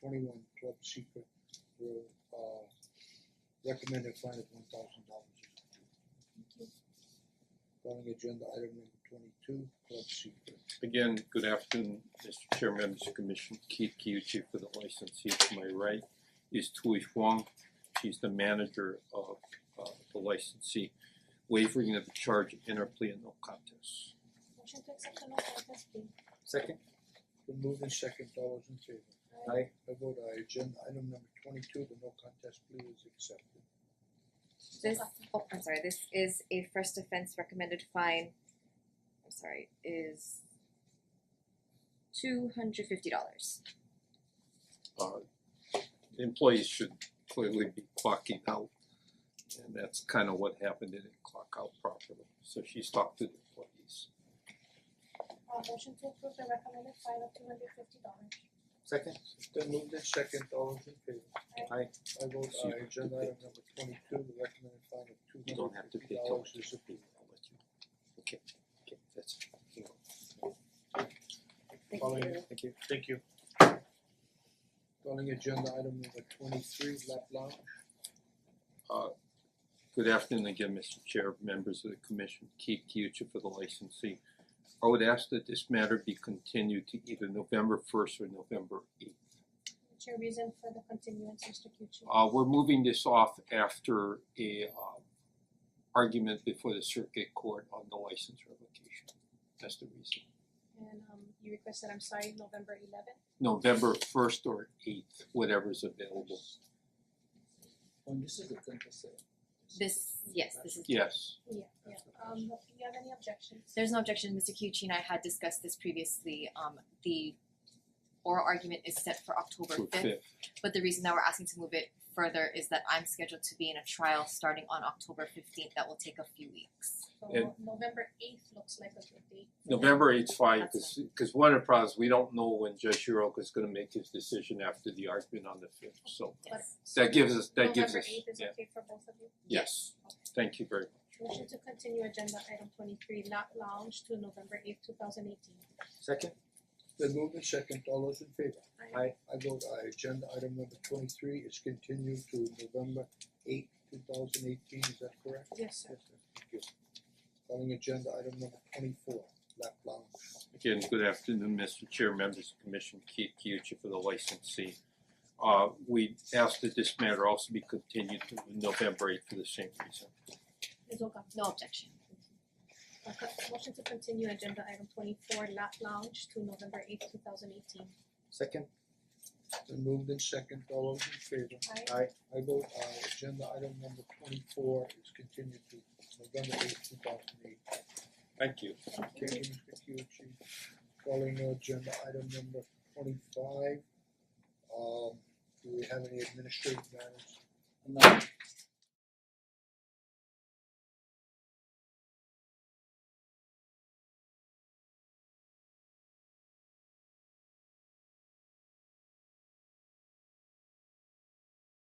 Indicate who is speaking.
Speaker 1: twenty-one Club Secret Road, uh, recommended fine of one thousand dollars. Calling agenda item number twenty-two, Club Secret.
Speaker 2: Again, good afternoon, Mr. Chair, members of the commission, Keith Kiyuchi for the licensee to my right is Tui Huang. She's the manager of uh the licensee, wavering of the charge in her plea and no contest.
Speaker 3: Motion to accept the no contest plea.
Speaker 4: Second,
Speaker 1: Been moved in second, all those in favor?
Speaker 4: aye,
Speaker 1: I vote aye, agenda item number twenty-two, the no contest plea is accepted.
Speaker 5: This, oh, I'm sorry, this is a first offense recommended fine, I'm sorry, is two hundred fifty dollars.
Speaker 2: Uh employees should clearly be clocking out. And that's kind of what happened, they didn't clock out properly, so she's talked to the employees.
Speaker 3: Uh motion to approve the recommended fine of two hundred fifty dollars.
Speaker 4: second,
Speaker 1: Then moved in second, all those in favor?
Speaker 4: aye,
Speaker 1: I vote
Speaker 2: So you
Speaker 1: aye,
Speaker 2: have to
Speaker 1: agenda
Speaker 2: pay.
Speaker 1: item number twenty-two, the recommended fine of two
Speaker 2: You don't
Speaker 1: hundred
Speaker 2: have to
Speaker 1: fifty
Speaker 2: pay till
Speaker 1: dollars
Speaker 2: it's
Speaker 1: is approved.
Speaker 2: I'll let you. Okay, okay, that's it, Hang on.
Speaker 5: Thank
Speaker 1: Calling-
Speaker 5: you.
Speaker 4: thank you.
Speaker 1: Thank you. Calling agenda item number twenty-three, Lap Lounge.
Speaker 2: Good afternoon again, Mr. Chair, members of the commission, Keith Kyuchi for the licensee. I would ask that this matter be continued to either November first or November eighth.
Speaker 3: What's your reason for the continuance, Mister Kyuchi?
Speaker 2: Uh we're moving this off after a uh argument before the circuit court on the license revocation. That's the reason.
Speaker 3: And um you requested, I'm sorry, November eleventh?
Speaker 2: November first or eighth, whatever is available.
Speaker 4: When this is the contest,
Speaker 5: This, yes, this is,
Speaker 2: Yes,
Speaker 3: Yeah, yeah. Um do you have any objections?
Speaker 5: there's no objection, Mister Kyuchi and I had discussed this previously, um the oral argument is set for October
Speaker 2: to a
Speaker 5: fifth,
Speaker 2: fifth.
Speaker 5: but the reason that we're asking to move it further is that I'm scheduled to be in a trial starting on October fifteenth, that will take a few weeks.
Speaker 3: So
Speaker 2: And-
Speaker 3: November eighth looks like a good date.
Speaker 2: November eighth, fine,
Speaker 5: That's
Speaker 2: cause cause one of the problems, we don't know when Judge Hiroka is gonna make his decision after the argument on the fifth, so
Speaker 3: But
Speaker 2: That gives us, that gives us,
Speaker 3: November eighth is
Speaker 2: yeah,
Speaker 3: okay for both of you?
Speaker 2: yes, thank you very much.
Speaker 3: Motion to continue agenda item twenty-three, Lot Lounge to November eighth, two thousand eighteen.
Speaker 4: second,
Speaker 1: Then moved in second, all those in favor?
Speaker 4: aye,
Speaker 1: I vote aye, agenda item number twenty-three is continued to November eighth, two thousand eighteen, is that correct?
Speaker 3: Yes, sir.
Speaker 1: Thank you. Calling agenda item number twenty-four, Lap Lounge.
Speaker 2: Again, good afternoon, Mr. Chair, members of the commission, Keith Kyuchi for the licensee. Uh, we ask that this matter also be continued to November eighth for the same reason.
Speaker 3: Ms. Oka.
Speaker 5: No objection.
Speaker 3: Uh, con- Motion to continue agenda item twenty-four, Lot Lounge to November eighth, two thousand eighteen.
Speaker 4: second,
Speaker 1: Then moved in second, all those in favor?
Speaker 3: Aye.
Speaker 4: aye,
Speaker 1: I vote aye, agenda item number twenty-four is continued to November eighth, two thousand eighteen.
Speaker 2: Thank you.
Speaker 1: Thank you, Mr. Kyuchi. Calling agenda item number twenty-five. Um, do we have any administrative matters?
Speaker 4: no,